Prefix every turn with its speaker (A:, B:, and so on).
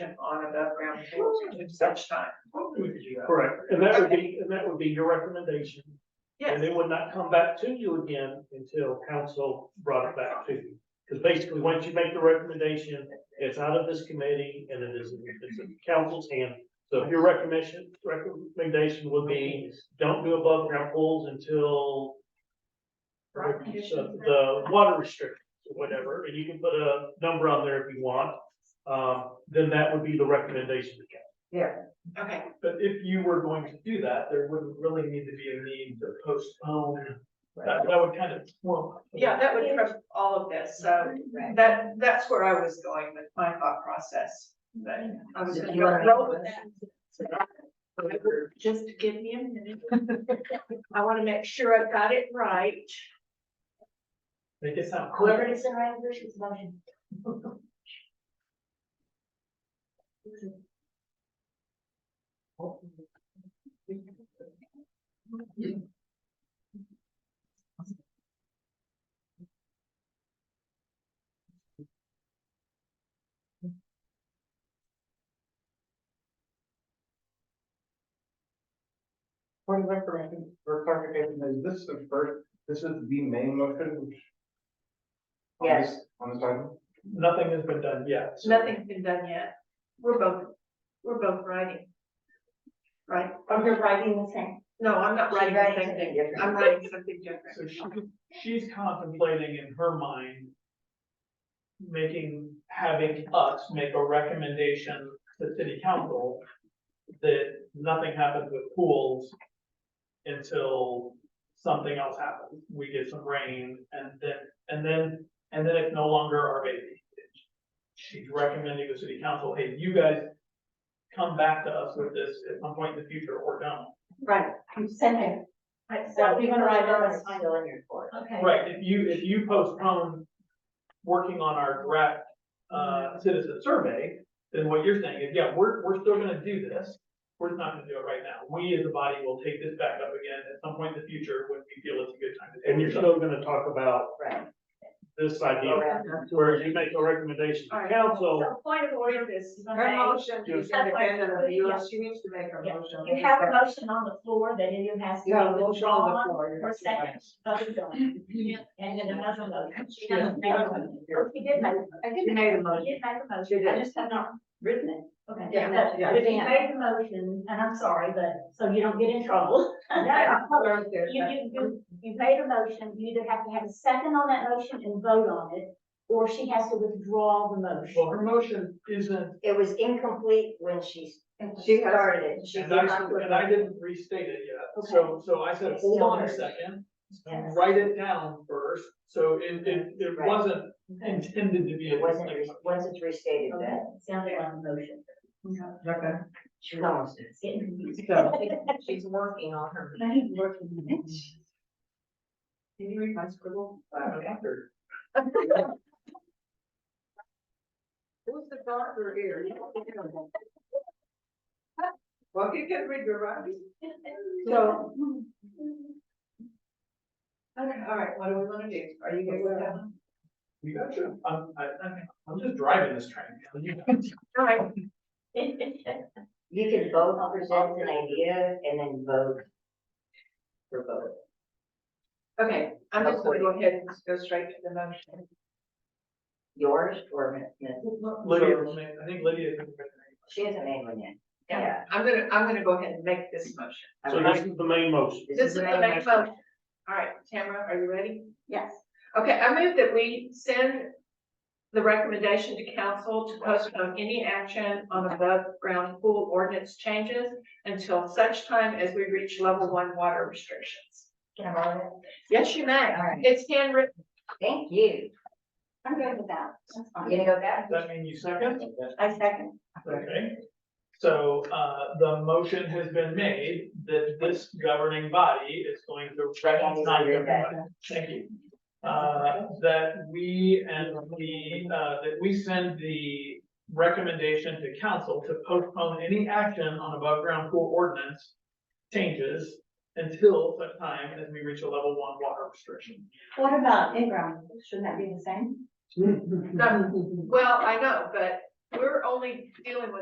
A: action on above ground pools to such time.
B: Correct, and that would be, and that would be your recommendation, and
A: Yes,
B: it would not come back to you again until council brought it back to you. Because basically, once you make the recommendation, it's out of this committee and it is, it's in council's hand. So if your recommendation, recommendation would be, don't do above ground pools until
A: Right.
B: the the water restrictions, or whatever, and you can put a number on there if you want. Um, then that would be the recommendation to council.
A: okay,
C: But if you were going to do that, there wouldn't really need to be a need to postpone, that, that would kind of. well,
A: yeah, that would cover all of this, so that, that's where I was going with my thought process. But I was gonna
D: You wanna-
A: roll with that. Just give me a minute. I wanna make sure I've got it right.
C: Make it sound
D: Whoever
C: clear.
D: it is in right version is voting.
E: Point of information, for clarification, is this the first, this is the main motion? on
D: Yes.
E: this- On this item?
C: Nothing has been done yet. so-
A: Nothing's been done yet. We're both, we're both writing. Right?
D: Or you're writing the same.
A: No, I'm not writing the same
D: something
A: thing.
D: different.
A: I'm writing something
C: So she,
A: different.
C: she's contemplating in her mind. Making, having us make a recommendation to city council. That nothing happens with pools. Until something else happens, we get some rain and then, and then, and then it's no longer our baby. She's recommending the city council, hey, you guys. Come back to us with this at some point in the future or don't.
D: Right. You send it. Right, so even right now, it's fine. Okay.
C: Right, if you, if you postpone working on our draft,
F: Mm-hmm.
C: uh, citizen survey, then what you're saying is, yeah, we're, we're still gonna do this. We're just not gonna do it right now. We as a body will take this back up again at some point in the future when we feel it's a good time to. take
B: And you're
C: it up.
B: still gonna talk about this idea, where you make a recommendation
A: All
B: to
A: right.
B: council,
A: So point of order is,
G: Her motion is
B: Just-
G: independent of yours, she needs to make a
D: Yeah.
G: motion.
D: You have a motion on the floor that either has to
G: You have a
D: be
G: motion on the
D: withdrawn
G: floor.
D: or second, voted on. And then another motion. She hasn't made a motion.
G: Yeah.
D: Or She did make,
G: I didn't make a
D: she
G: motion.
D: did make a
G: She
D: motion.
G: did.
D: I just have not written it. Okay.
G: Yeah,
D: But
G: yeah.
D: but she made the motion, and I'm sorry, but, so you don't get in trouble. You, you, you, you made a motion, you either have to have a second on that motion and vote on it, or she has to withdraw the
C: Well,
D: motion.
C: her motion isn't,
F: It was incomplete when she,
G: She
F: she
G: has-
F: started it. She
C: and I,
F: came up with
C: and I didn't restate it yet. So, so I said, hold on a second,
D: Yes.
C: write it down first. So it, it, it
F: Right. Mm-hmm.
C: wasn't intended to be. a
F: It wasn't,
C: distinction.
F: re- once it's restated
D: Okay,
F: that,
D: sounded like a motion.
G: Okay.
F: she was almost it.
D: Getting confused.
G: So-
F: She's working on her.
D: I need to work on it.
A: Can you read my scribble?
C: I'm after.
G: Who's the doctor here?
A: Well, if you can read your writing. So. Okay, all right, what do we wanna do? Are you good with that one?
C: You gotcha. I'm, I, I'm- I'm just driving this train.
A: All right,
F: You could both present an idea and then vote for both.
A: okay, I'm just gonna go ahead and just go straight to the motion.
F: Yours or Miss,
C: Lydia, I think Lydia. is-
F: she hasn't made one yet.
A: Yeah, I'm gonna, I'm gonna go ahead and make this motion.
B: so this is the main motion.
A: This is the next motion. All right, Tamara, are you ready?
D: Yes.
A: Okay, I move that we send the recommendation to council to postpone any action on above ground pool ordinance changes until such time as we reach level one water restrictions.
F: Can I borrow it?
A: Yes, you may.
F: All right,
A: It's handwritten.
F: thank you.
D: I'm good with that. That's
F: You
D: fine.
F: gonna go back?
C: Does that mean you second?
D: I second.
C: Okay. So, uh, the motion has been made that this governing body is going to recognize everybody. Thank you. Uh, that we and the, uh, that we send the recommendation to council to postpone any action on above ground pool ordinance changes until such time as we reach a level one water restriction.
E: Hmm.
D: What about in-ground? Shouldn't that be the same?
A: No, Well, I know, but we're only dealing with